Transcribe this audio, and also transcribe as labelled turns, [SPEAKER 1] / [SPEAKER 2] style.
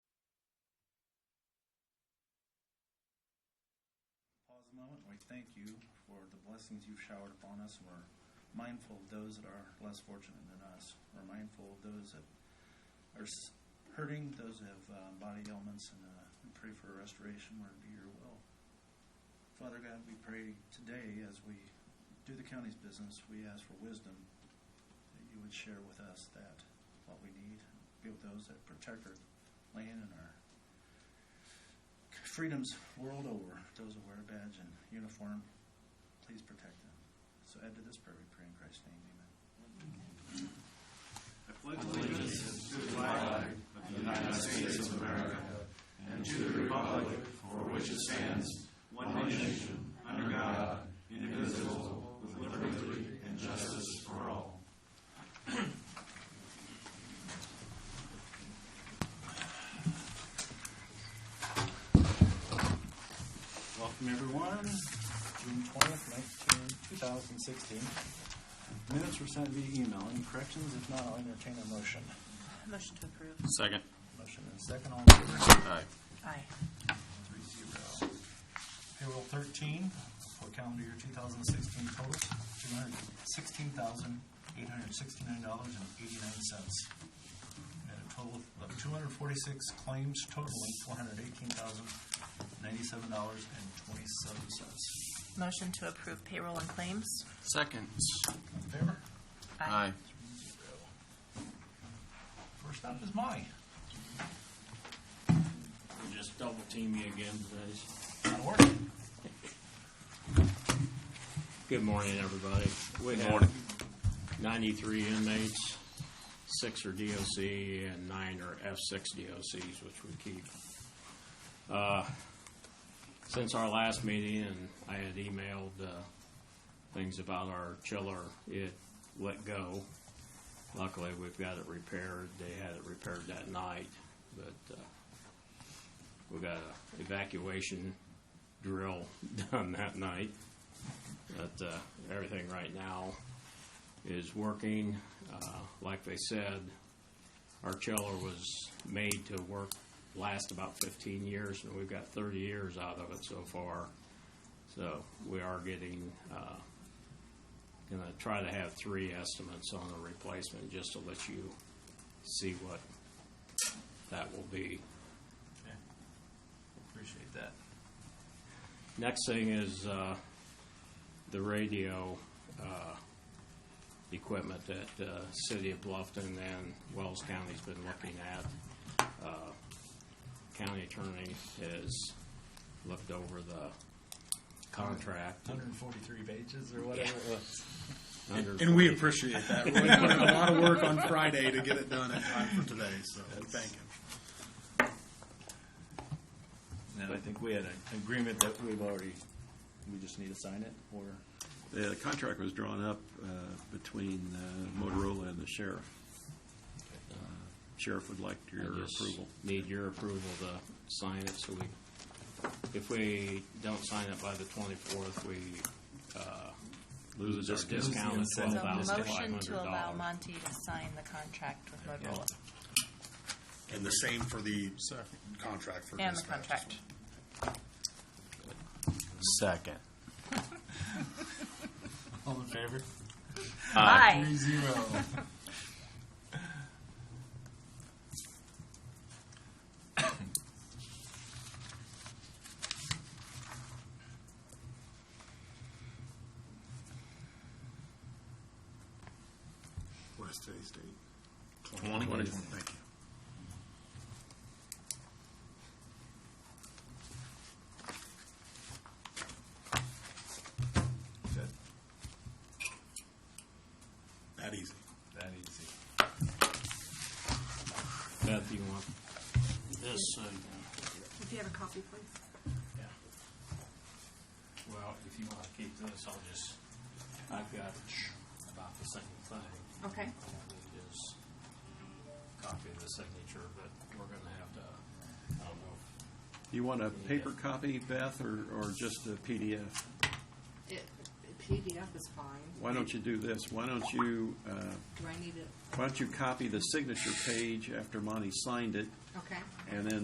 [SPEAKER 1] moment, we thank you for the blessings you've showered upon us. and We're mindful of those that are less fortunate than us. We're mindful of those that are s- hurting, those that have uh, body ailments, and uh, we pray for restoration where it be your will. Father God, we pray today as we do the county's business, we ask for wisdom that you would share with us that what we need. Be with those that protect our land and our freedoms world over. Those who wear a badge and uniform, please protect them. So add to this prayer, we pray in Christ's name, amen. Welcome, everyone. June 20th, 19, 2016. Minutes were sent via email. Any corrections? If not, I'll entertain a motion.
[SPEAKER 2] Motion to approve.
[SPEAKER 3] Second.
[SPEAKER 1] Motion and second, all in favor?
[SPEAKER 3] Aye.
[SPEAKER 2] Aye.
[SPEAKER 1] Three zero. Payroll 13 for calendar year 2016 total, $216,869.89. And a total of 246 claims totaling $418,097.27.
[SPEAKER 2] Motion to approve payroll and claims.
[SPEAKER 3] Second.
[SPEAKER 1] In favor?
[SPEAKER 3] Aye.
[SPEAKER 1] First up is Molly.
[SPEAKER 4] Just double team me again, please.
[SPEAKER 1] Out of order.
[SPEAKER 4] Good morning, everybody. We have
[SPEAKER 3] morning.
[SPEAKER 4] Ninety-three inmates, six are DOC and nine are F six DOCs, which we keep. Uh, Since our last meeting, and I had emailed, uh, things about our chiller, it let go. Luckily, we've got it repaired. They had it repaired that night, but, uh, we got a evacuation drill done that night. But uh, everything right now is working. Uh, like they said, our chiller was made to work, last about 15 years, and we've got 30 years out of it so far. So we are getting, uh, gonna try to have three estimates on the replacement, just to let you see what that will be.
[SPEAKER 1] Okay. Appreciate that.
[SPEAKER 4] Next thing is uh, the radio uh, equipment that uh, City of Bluffton and Wells County's been looking at. Uh, County attorney has looked over the contract.
[SPEAKER 1] 143 pages or whatever it was.
[SPEAKER 4] under-
[SPEAKER 5] And we appreciate that. We put in a lot of work on Friday to get it done in time for today, so we thank him.
[SPEAKER 1] No, I think we had an agreement that we've already, we just need to sign it, or?
[SPEAKER 6] Yeah, the contract was drawn up uh, between uh, Motorola and the sheriff. Uh, Sheriff would like
[SPEAKER 4] I
[SPEAKER 6] your
[SPEAKER 4] just
[SPEAKER 6] approval.
[SPEAKER 4] Need your approval to sign it, so we, if we don't sign it by the twenty-fourth, we uh, lose our
[SPEAKER 6] discount.
[SPEAKER 4] discount of
[SPEAKER 2] So
[SPEAKER 4] twelve thousand five
[SPEAKER 2] motion
[SPEAKER 4] hundred
[SPEAKER 2] to allow
[SPEAKER 4] dollars.
[SPEAKER 2] Monty to sign the contract with Motorola
[SPEAKER 5] And the same for the contract for
[SPEAKER 2] and the
[SPEAKER 5] dispatch.
[SPEAKER 2] contract.
[SPEAKER 3] Second.
[SPEAKER 1] All in favor?
[SPEAKER 2] Aye.
[SPEAKER 1] zero.
[SPEAKER 5] What is today's date?
[SPEAKER 6] Twenty. Twenty.
[SPEAKER 5] Thank you.
[SPEAKER 1] Good.
[SPEAKER 5] That easy.
[SPEAKER 1] That easy.
[SPEAKER 4] Beth, you want this? uh,
[SPEAKER 7] If you have a copy, please.
[SPEAKER 4] Well, if you want to keep this, I'll just, I've got about the same thing.
[SPEAKER 7] Okay.
[SPEAKER 4] All we need is copy of the signature, but we're gonna have to, I don't know,
[SPEAKER 6] You want a paper copy, Beth, or, or just a PDF?
[SPEAKER 7] PDF is fine.
[SPEAKER 6] Why don't you do this? Why don't you, uh,
[SPEAKER 7] Do I need it?
[SPEAKER 6] why don't you copy the signature page after Monty signed it,
[SPEAKER 7] Okay.
[SPEAKER 6] and then